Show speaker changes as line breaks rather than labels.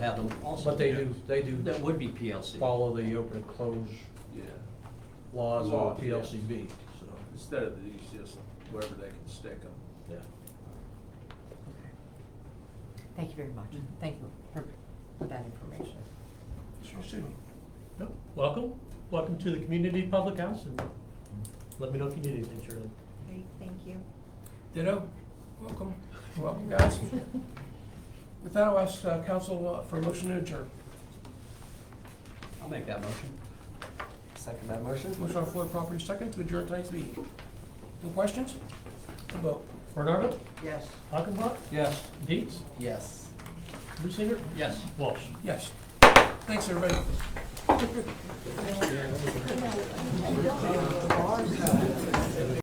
have them also.
But they do, they do
That would be PLC.
follow the open and close
Yeah,
laws
Law,
of
yeah.
PLCB, so,
instead of these, just wherever they can stick them.
yeah.
Thank you very much. Thank you for, for that information.
No, Welcome, welcome to the community public house, and let me know if you need anything, Shirley.
Great, thank you.
Ditto. Welcome, welcome, guys. With that, I'll ask uh, council uh, for a motion to adjourn.
I'll make that motion.
Second that motion?
Motion on the floor, property second, to adjourn tonight's meeting. No questions? A Vote.
Bernardo,
Yes.
Hockenbach,
Yes.
Dietz,
Yes.
Lucinger,
Yes.
Walsh.
Yes. Thanks, everybody.